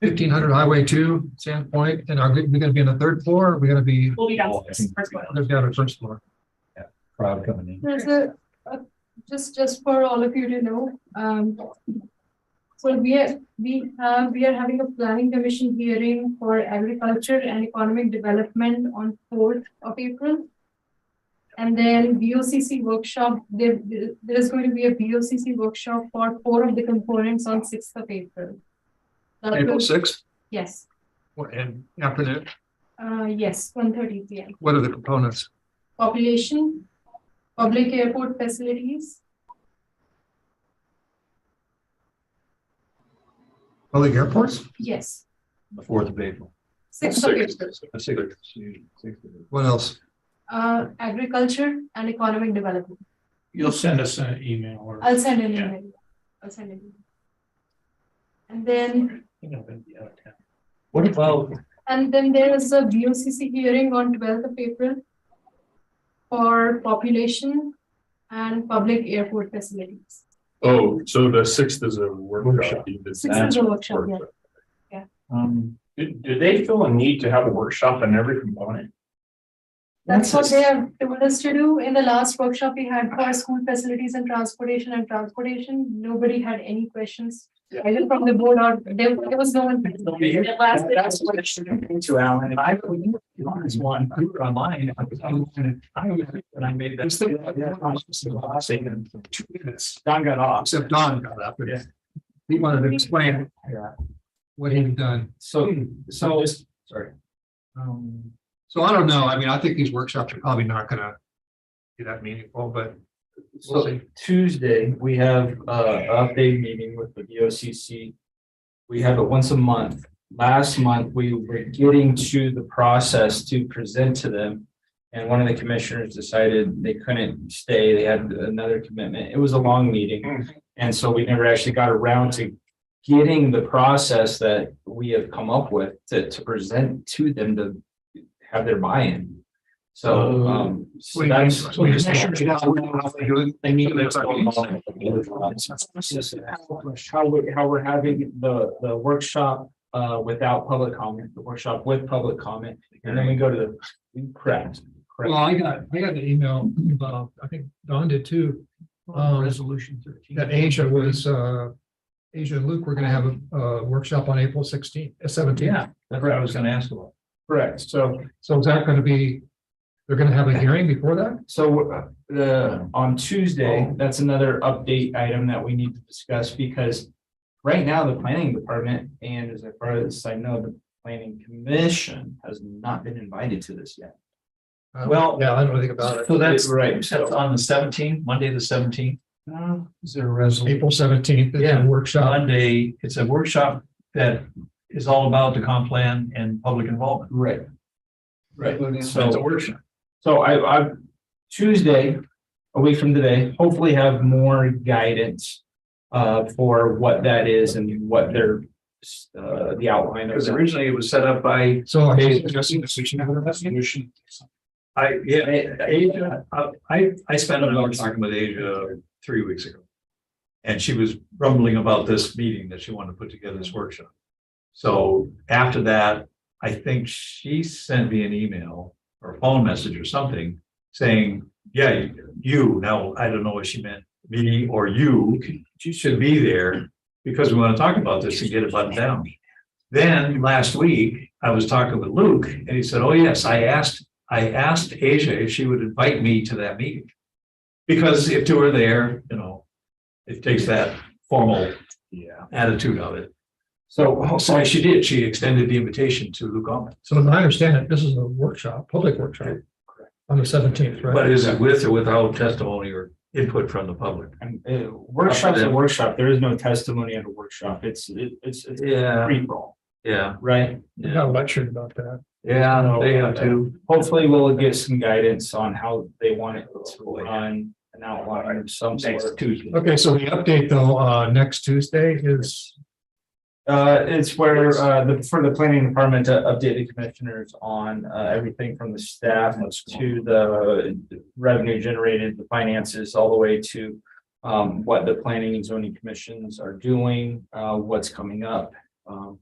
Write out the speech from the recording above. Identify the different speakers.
Speaker 1: fifteen hundred Highway two, Sandpoint, and are we we gonna be on the third floor? Are we gonna be,
Speaker 2: We'll be downstairs. First one.
Speaker 1: there's down at first floor?
Speaker 3: crowd coming in.
Speaker 4: There's a, a- just, just for all of you to know, um. So we are, we have, we are having a planning commission hearing for agriculture and economic development on fourth of April. And then BOCC workshop, there, there is going to be a BOCC workshop for four of the components on sixth of April. That will-
Speaker 1: April sixth,
Speaker 4: Yes,
Speaker 1: and after that,
Speaker 4: uh, yes, one thirty P M.
Speaker 1: what are the components?
Speaker 4: population, public airport facilities,
Speaker 1: Public airports?
Speaker 4: yes,
Speaker 3: The fourth of April.
Speaker 4: sixth of April.
Speaker 3: The sixth, excuse me, sixth of April.
Speaker 1: What else?
Speaker 4: Uh, agriculture and economic development.
Speaker 5: You'll send us an email or.
Speaker 4: I'll send an
Speaker 5: Yeah.
Speaker 4: email. I'll send an email. And then,
Speaker 5: You know, it'll be out of town.
Speaker 3: What about,
Speaker 4: and then there is a BOCC hearing on twelfth of April for population and public airport facilities.
Speaker 6: Oh, so the sixth is a workshop.
Speaker 3: Workshop.
Speaker 6: You did
Speaker 4: Six
Speaker 6: that.
Speaker 4: is a workshop, yeah.
Speaker 3: um,
Speaker 6: Do, do they feel a need to have a workshop on every component?
Speaker 4: That's what
Speaker 3: what's
Speaker 4: they
Speaker 3: this-
Speaker 4: have told us to do. In the last workshop we had for school facilities and transportation and transportation, nobody had any questions.
Speaker 6: Yeah.
Speaker 4: Either from the board or there, there was no one.
Speaker 2: It lasted-
Speaker 3: That's what it should have been to Alan. If I, were you you on this one, you were online, I was, I was, I was, when I made that. Yeah, I was just saying in Two minutes, Don got off.
Speaker 1: Except Don got up and
Speaker 3: Yeah.
Speaker 1: he wanted to explain
Speaker 3: Yeah.
Speaker 1: what he'd done.
Speaker 3: So, so, sorry. Hmm. Um,
Speaker 1: So I don't know. I mean, I think these workshops are probably not gonna be that meaningful, but we'll
Speaker 3: so
Speaker 1: see.
Speaker 3: Tuesday, we have uh, a update meeting with the VOCC. We have it once a month. Last month, we were getting to the process to present to them. And one of the commissioners decided they couldn't stay. They had another commitment. It was a long
Speaker 1: Hmm.
Speaker 3: meeting. And so we never actually got around to getting the process that we have come up with to, to present to them to have their buy-in. So,
Speaker 1: Uh,
Speaker 3: um, so
Speaker 1: Wait,
Speaker 3: that's.
Speaker 1: wait, wait, commissioners now know how they're doing.
Speaker 3: They need.
Speaker 1: So that's how we-
Speaker 3: How we, how we're having the, the workshop, uh, without public comment, the workshop with public comment, and then we go to the, correct.
Speaker 1: Well, I got, I got an email, uh, I think Don did too. Um,
Speaker 3: uh, Resolution thirteen.
Speaker 1: that Asia was, uh, Asia and Luke, we're gonna have a, uh workshop on April sixteenth, uh, seventeenth.
Speaker 3: Yeah, that's what I was gonna ask about. Correct, so,
Speaker 1: So is that gonna be, they're gonna have a hearing before that?
Speaker 3: so, uh, the, on Tuesday, that's another update item that we need to discuss, because right now, the planning department, and as far as I know, the planning commission has not been invited to this yet.
Speaker 1: Uh,
Speaker 3: Well-
Speaker 1: Yeah, I don't think about it.
Speaker 3: So Uh, that's right.
Speaker 5: on the seventeenth, Monday, the seventeenth. Is there a resolution?
Speaker 1: April seventeenth,
Speaker 5: Yeah.
Speaker 1: a workshop.
Speaker 5: Monday, it's a workshop that is all about the comp plan and public involvement.
Speaker 3: Right. Right.
Speaker 5: So it's a workshop.
Speaker 3: So I, I, Tuesday, a week from today, hopefully have more guidance uh, for what that is and what their, uh, the outline. of
Speaker 5: Because
Speaker 3: that.
Speaker 5: originally it was set up by,
Speaker 1: So are you suggesting that we should have a resolution?
Speaker 6: I, yeah,
Speaker 3: Yeah.
Speaker 6: Asia, uh, I, I spent an hour talking with Asia three weeks ago. And she was rumbling about this meeting that she wanted to put together this workshop. So after that, I think she sent me an email or a phone message or something saying, yeah, you, now, I don't know what she meant, me or you, should be there because we want to talk about this and get it buttoned down. Then last week, I was talking with Luke and he said, oh, yes, I asked I asked Asia if she would invite me to that meeting. Because if two are there, you know, it takes that formal attitude of it.
Speaker 3: So, uh, ho-
Speaker 6: So she did, she extended the invitation to Luke Altman.
Speaker 1: So as I understand it, this is a workshop, public workshop on the seventeenth, right?
Speaker 6: But is it with or without testimony or input from the public?
Speaker 3: and, uh, workshop's a workshop. There is no testimony at a workshop. It's, it- it's, it's
Speaker 6: Yeah,
Speaker 3: free roll,
Speaker 6: yeah,
Speaker 3: right?
Speaker 1: We got lectured about that.
Speaker 6: yeah, they have to.
Speaker 3: Hopefully we'll get some guidance on how they want it to
Speaker 6: Hopefully.
Speaker 3: run, an outline of some sort.
Speaker 6: Tuesday.
Speaker 1: Okay, so the update though, uh, next Tuesday is,
Speaker 3: Uh, it's where, uh, the, for the planning department to update the commissioners on, uh, everything from the staff to the revenue generated, the finances, all the way to um, what the planning and zoning commissions are doing, uh, what's coming up. Um,